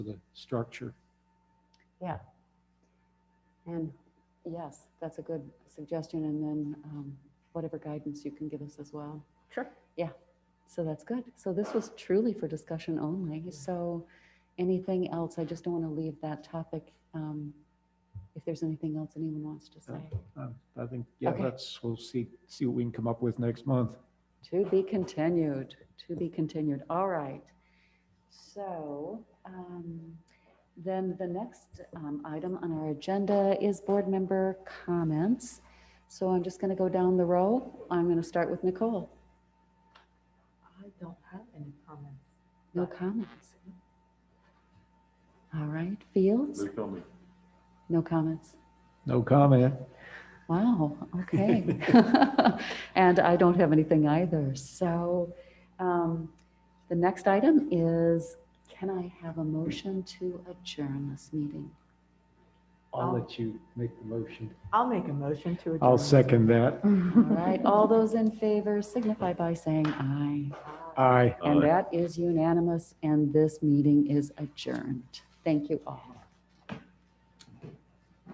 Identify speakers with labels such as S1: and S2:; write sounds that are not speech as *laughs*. S1: to the structure.
S2: And yes, that's a good suggestion. And then um, whatever guidance you can give us as well.
S3: Sure.
S2: So that's good. So this was truly for discussion only. So anything else? I just don't want to leave that topic. um, If there's anything else anyone wants to say.
S1: Um, I think, yeah,
S2: Okay.
S1: that's, we'll see, see what we can come up with next month.
S2: To be continued, to be continued. All right. So um, then the next um, item on our agenda is board member comments. So I'm just going to go down the row. I'm going to start with Nicole.
S3: I don't have any comments.
S2: No comments. All right, Fields? No comments.
S1: No comment.
S2: Wow, okay. And I don't have anything either. So um, the next item is, can I have a motion to adjourn this meeting?
S3: I'll-
S4: I'll let you make the motion.
S3: I'll make a motion to adjourn.
S1: I'll second that.
S3: *laughs*
S2: All right, all those in favor signify by saying aye.
S1: Aye.
S2: And that is unanimous, and this meeting is adjourned. Thank you all.